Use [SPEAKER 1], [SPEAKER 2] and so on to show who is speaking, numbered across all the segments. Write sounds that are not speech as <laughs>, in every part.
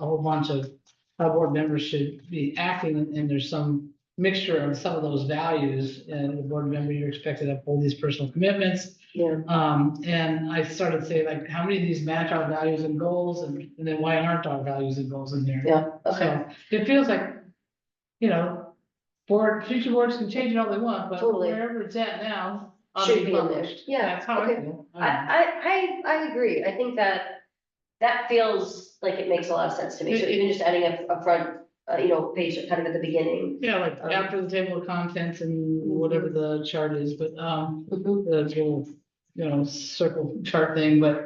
[SPEAKER 1] a whole bunch of, our board members should be acting and- and there's some mixture of some of those values. And the board member, you're expected to uphold these personal commitments.
[SPEAKER 2] Yeah.
[SPEAKER 1] Um, and I started saying like, how many of these match our values and goals and, and then why aren't our values and goals in there?
[SPEAKER 2] Yeah, okay,
[SPEAKER 1] So It feels like, you know, board, future boards can change it all they want, but
[SPEAKER 2] Totally.
[SPEAKER 1] wherever it's at now. ought to
[SPEAKER 2] should be in there,
[SPEAKER 1] published.
[SPEAKER 2] yeah,
[SPEAKER 1] That's how I
[SPEAKER 2] okay.
[SPEAKER 1] feel. I
[SPEAKER 2] I,
[SPEAKER 1] don't know.
[SPEAKER 2] I, I, I agree, I think that, that feels like it makes a lot of sense to me, so
[SPEAKER 1] It- it-
[SPEAKER 2] even just adding a, a front, uh, you know, page kind of at the beginning.
[SPEAKER 1] Yeah, like
[SPEAKER 2] Um,
[SPEAKER 1] after the table of contents and whatever the chart is, but, um,
[SPEAKER 2] Mhm.
[SPEAKER 1] the little, you know, circle chart thing, but,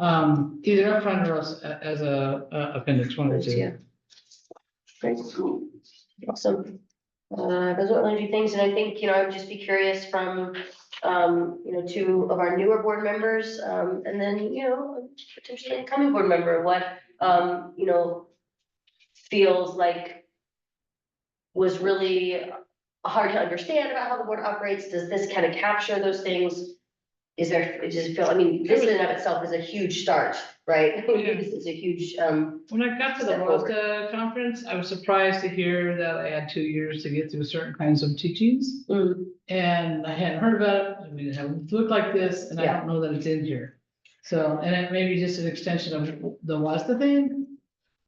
[SPEAKER 1] um, either up front or as, as a, a appendix, one or
[SPEAKER 2] Yeah.
[SPEAKER 1] two.
[SPEAKER 2] Great. Awesome. Uh, those are only two things, and I think, you know, I would just be curious from, um, you know, two of our newer board members, um, and then, you know, potentially a coming board member, what, um, you know, feels like was really hard to understand about how the board operates. Does this kind of capture those things? Is there, does it feel, I mean, this in and of itself is a huge start, right? <laughs>
[SPEAKER 1] Yeah.
[SPEAKER 2] This is a huge, um,
[SPEAKER 1] When I got to the
[SPEAKER 2] Step forward.
[SPEAKER 1] WASDA conference, I was surprised to hear that I had two years to get through certain kinds of teachings.
[SPEAKER 2] mm,
[SPEAKER 1] And I hadn't heard about it, I mean, it hadn't looked like this, and I don't know that it's in here. So, and it may be just an extension of the WASDA thing,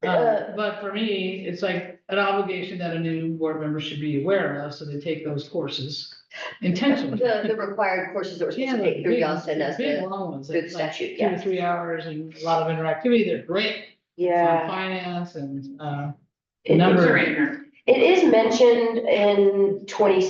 [SPEAKER 2] uh,
[SPEAKER 1] Uh, but for me, it's like an obligation that a new board member should be aware of, so they take those courses intentionally.
[SPEAKER 2] The, the required courses that we're supposed
[SPEAKER 1] Yeah,
[SPEAKER 2] to
[SPEAKER 1] like
[SPEAKER 2] take through
[SPEAKER 1] big-
[SPEAKER 2] Youngstown as
[SPEAKER 1] Big
[SPEAKER 2] the,
[SPEAKER 1] long ones,
[SPEAKER 2] through the
[SPEAKER 1] like like
[SPEAKER 2] statute,
[SPEAKER 1] two to
[SPEAKER 2] yeah.
[SPEAKER 1] three hours and a lot of interactivity, they're great. on Finance and, uh,
[SPEAKER 2] It-
[SPEAKER 1] number-
[SPEAKER 3] Those are in here.
[SPEAKER 2] It is mentioned in twenty,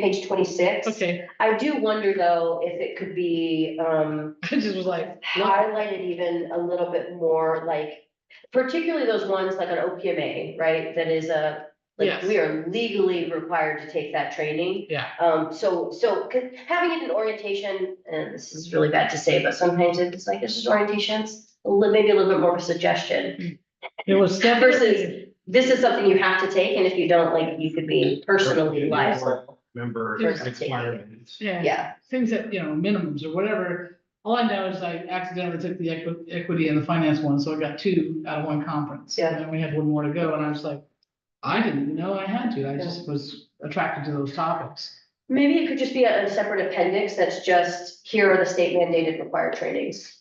[SPEAKER 2] page twenty-six.
[SPEAKER 1] okay, <laughs>
[SPEAKER 2] I do wonder though, if it could be, um,
[SPEAKER 1] I just was like, look,
[SPEAKER 2] highlighted even a little bit more, like, particularly those ones like on OPMA, right? That is a, like,
[SPEAKER 1] Yes.
[SPEAKER 2] we are legally required to take that training.
[SPEAKER 1] Yeah.
[SPEAKER 2] Um, so, so, 'cause having it in orientation, and this is really bad to say, but sometimes it's like, this is orientations, a little- maybe a little bit more of a suggestion.
[SPEAKER 1] it was step
[SPEAKER 2] Versus- This is something you have to take, and if you don't, like, you could be personally liable.
[SPEAKER 4] member
[SPEAKER 2] Person
[SPEAKER 4] requirements.
[SPEAKER 1] Yeah,
[SPEAKER 2] Yeah,
[SPEAKER 1] things that, you know, minimums or whatever. All I know is I accidentally took the equi- equity and the finance one, so I got two out of one conference.
[SPEAKER 2] Yeah.
[SPEAKER 1] And then we had one more to go, and I was like, I didn't even know I had to, I
[SPEAKER 2] Yeah.
[SPEAKER 1] just was attracted to those topics.
[SPEAKER 2] maybe it could just be a a separate appendix that's just, here are the state mandated required trainings.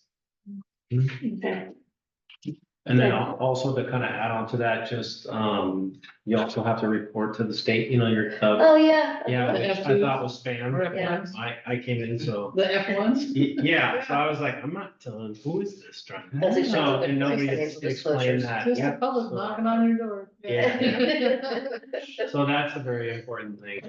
[SPEAKER 4] And then al- also to kind of add on to that, just, um, you also have to report to the state, you know, your, uh,
[SPEAKER 2] Oh, yeah.
[SPEAKER 4] yeah, which I thought was
[SPEAKER 1] Or
[SPEAKER 4] spam. Um,
[SPEAKER 1] F
[SPEAKER 2] Yeah.
[SPEAKER 1] ones,
[SPEAKER 4] I, I came in, so,
[SPEAKER 1] the F ones.
[SPEAKER 4] Y- yeah, so I was like, I'm not telling, who is this trying?
[SPEAKER 2] <laughs>
[SPEAKER 4] to-"
[SPEAKER 2] That's exactly
[SPEAKER 4] So,
[SPEAKER 2] what
[SPEAKER 4] and nobody
[SPEAKER 2] it is,
[SPEAKER 4] ex-
[SPEAKER 2] financial
[SPEAKER 4] explained
[SPEAKER 2] disclosures.
[SPEAKER 4] that,
[SPEAKER 1] Just
[SPEAKER 4] yeah.
[SPEAKER 1] the public knocking on your door.
[SPEAKER 4] Yeah.
[SPEAKER 2] <laughs>
[SPEAKER 4] So that's a very important thing.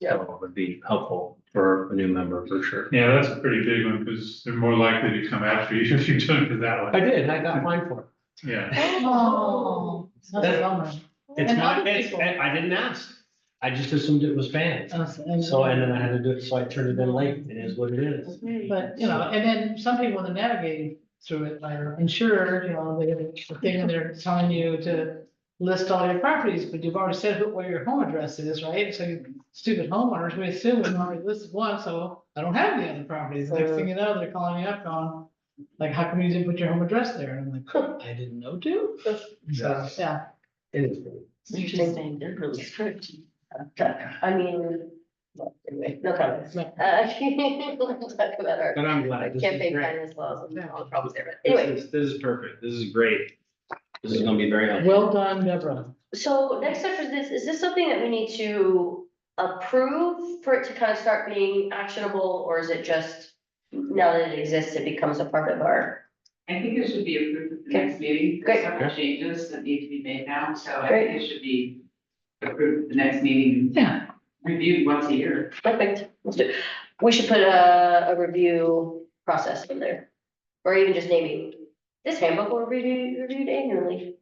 [SPEAKER 2] Yeah.
[SPEAKER 4] So it Would be helpful for a new member, for sure.
[SPEAKER 5] Yeah, that's a pretty big one, because they're more likely to come after you <laughs> if you don't do that
[SPEAKER 4] I
[SPEAKER 5] one,
[SPEAKER 4] did, I got mine for
[SPEAKER 5] yeah.
[SPEAKER 1] <laughs> Oh, that's a bummer.
[SPEAKER 4] it. It's
[SPEAKER 1] And
[SPEAKER 4] not,
[SPEAKER 1] other
[SPEAKER 4] it's,
[SPEAKER 1] people-
[SPEAKER 4] I didn't ask. I just assumed it was spam.
[SPEAKER 1] Us, and-
[SPEAKER 4] So, and then I had to do it, so I turned it in late, it is what it is.
[SPEAKER 1] But, you know, and then some people that are navigating through it, like our insurer, you know, they have a thing and they're telling you to list all your properties, but you've already said who- where your home address is, right? So you stupid homeowners, we assume we already listed one, so I don't have the other properties. Next thing you know, they're calling you up on, like, how come you didn't put your home address there? And I'm like, I didn't know to. So, yeah.
[SPEAKER 4] It is.
[SPEAKER 2] Interesting, they're really strict. I mean, well, anyway, no comments. Uh, <laughs> we'll talk about our
[SPEAKER 4] But I'm glad. this is
[SPEAKER 2] campaign
[SPEAKER 4] great.
[SPEAKER 2] finance laws and all the problems there, but
[SPEAKER 4] This
[SPEAKER 2] anyway.
[SPEAKER 4] is, this is perfect, this is great. This is gonna be very helpful.
[SPEAKER 1] Well done, Deborah.
[SPEAKER 2] So next up is this, is this something that we need to approve for it to kind of start being actionable, or is it just now that it exists, it becomes a part of our?
[SPEAKER 3] I think it should be approved at the next meeting. There's
[SPEAKER 2] Great.
[SPEAKER 3] Several changes that need to be made now, so I
[SPEAKER 2] Great.
[SPEAKER 3] think it should be approved at the next meeting,
[SPEAKER 1] Yeah.
[SPEAKER 3] reviewed once a year.
[SPEAKER 2] Perfect, let's do, it. we should put a, a review process in there, or even just naming, this handbook will be reviewed- reviewed annually.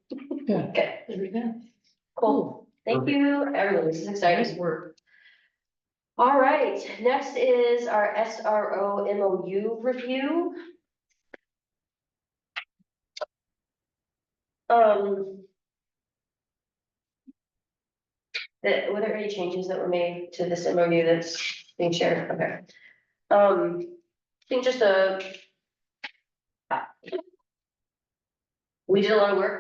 [SPEAKER 1] Yeah.
[SPEAKER 2] <laughs> Okay,
[SPEAKER 1] There we go.
[SPEAKER 2] cool, thank you, everyone, this is exciting.
[SPEAKER 1] Nice work.
[SPEAKER 2] All right, next is our SRO MOU review. Um. That, were there any changes that were made to this MOU that's being shared? Okay. Um, I think just a. We did a lot of work